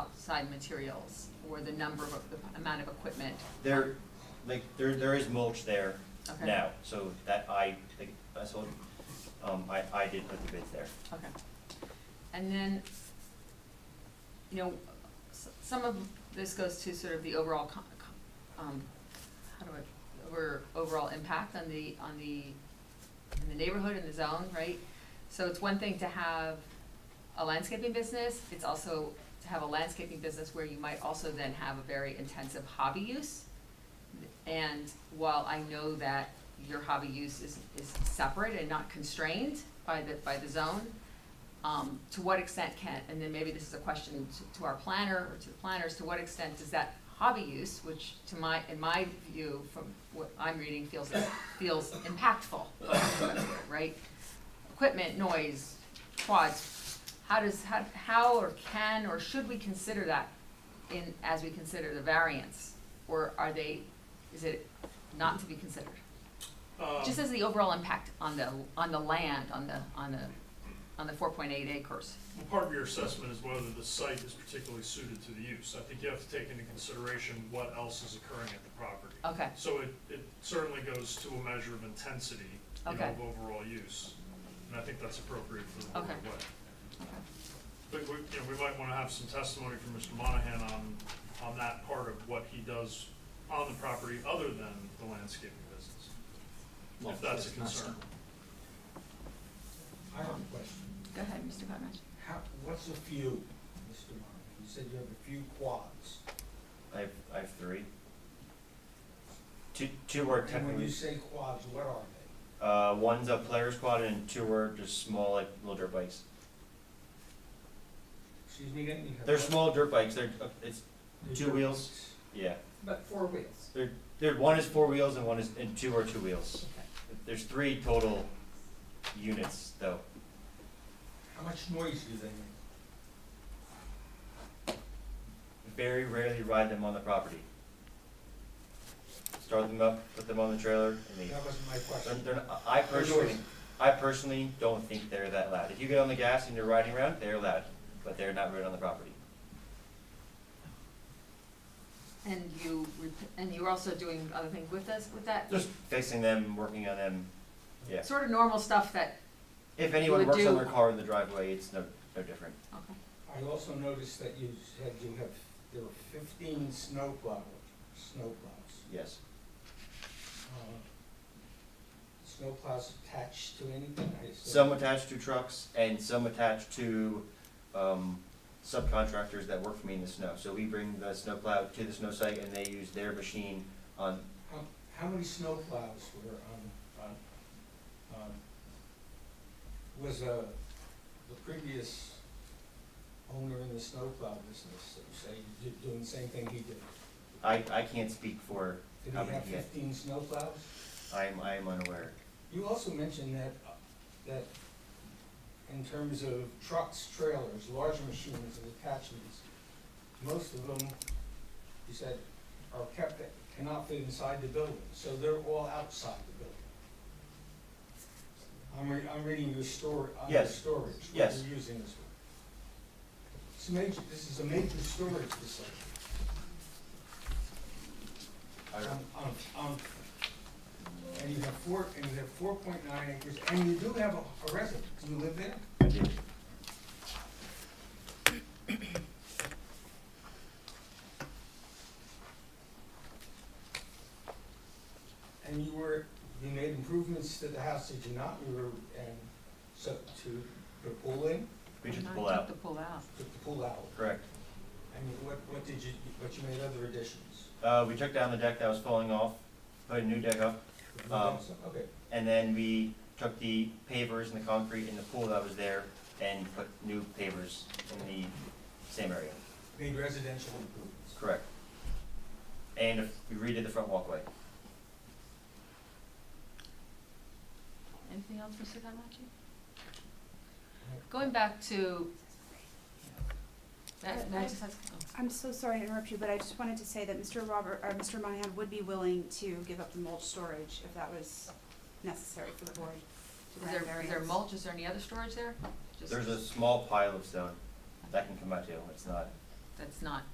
outside materials or the number of, the amount of equipment? There, like, there, there is mulch there Okay. now, so that I, think- I sold, um, I, I did put the bids there. Okay. And then, you know, s- some of this goes to sort of the overall con, con- um, how do I, over, overall impact on the, on the, in the neighborhood and the zone, right? So it's one thing to have a landscaping business, it's also to have a landscaping business where you might also then have a very intensive hobby use. And while I know that your hobby use is, is separate and not constrained by the, by the zone, um, to what extent can, and then maybe this is a question to, to our planner or to the planners, to what extent does that hobby use, which to my, in my view, from what I'm reading, feels, feels impactful, right? Equipment, noise, quads, how does, how, how or can or should we consider that in, as we consider the variance? Or are they, is it not to be considered? Um, Just as the overall impact on the, on the land, on the, on the, on the four point eight acres. well, Part of your assessment is whether the site is particularly suited to the use. I think you have to take into consideration what else is occurring at the property. Okay, So it, it certainly goes to a measure of intensity, you know, Okay. of overall use. And I think that's appropriate for the Okay. board way. okay, But we, you know, we might wanna have some testimony from Mr. Monahan on, on that part of what he does on the property other than the landscaping business, if that's a concern. I have a question. go ahead, Mr. Cottage. How, what's a few, Mr. Monahan? You said you have a few quads. I have, I have three. Two, two are And when you technically, say quads, what are they? uh, one's a player squad and two are just small, like, little dirt bikes. Excuse me again? you have- They're small dirt bikes, they're, uh, it's, They're two dirt wheels. bikes. yeah. But four wheels. They're, they're, one is four wheels and one is, and two are two wheels. There's three total units, though. How much noise do they make? Very rarely ride them on the property. Start them up, put them on the trailer, and leave. That wasn't my They're, question. they're not, I personally, I personally don't think they're that loud. If you get on the gas and you're riding around, they're loud, but they're not right on the property. And you, rep- and you were also doing other things with us, with that? Just fixing them, working on them. Yeah. Sort of normal stuff that, If You anyone would works on do- their car in the driveway, it's no, no different. okay, I also noticed that you said you have, there are fifteen snow plow, snow plows. Yes. Uh, Snow plows attached to anything? I assume? Some attached to trucks and some attached to, um, subcontractors that work for me in the snow. So we bring the snowplow to the snow site and they use their machine on, How, Um, how many snow plows were on, on, on, was, uh, the previous owner in the snow plow business, so say, you did- doing the same thing he did? I, I can't speak for, Did How he many have he had? fifteen snow plows? I'm, I'm unaware. You also mentioned that, uh, that in terms of trucks, trailers, large machines and attachments, most of them, you said, are kept, that cannot fit inside the building, so they're all outside the building. I'm re- I'm reading your story, on your Yes. storage, what Yes. you're using this one. It's major, this is a major storage facility. I Um, um, um, and you have four, and you have four point nine acres, and you do have a a residence, you live there? I did. And you were, you made improvements to the house, did you not? You were, and so to put a pool in, We took the I pull took out, the pull out. took the pool out, correct. and you- what, what did you, what you made other additions? Uh, we took down the deck that was falling off, put a new deck up, Um, Okay, and then we took the pavers and the concrete and the pool that was there and put new pavers in the same area, made residential improvements. correct. And we redid the front walkway. Anything else, Mr. Cottage? Going back to. That, I- I- just ask- oh. I'm so sorry to interrupt you, but I just wanted to say that Mr. Robert, or Mr. Monahan would be willing to give up the mulch storage if that was necessary for the board. to Is grant there, is there variance. mulch, is there any other storage there? Just- There's a small pile of stone that can come out too, it's not, that's not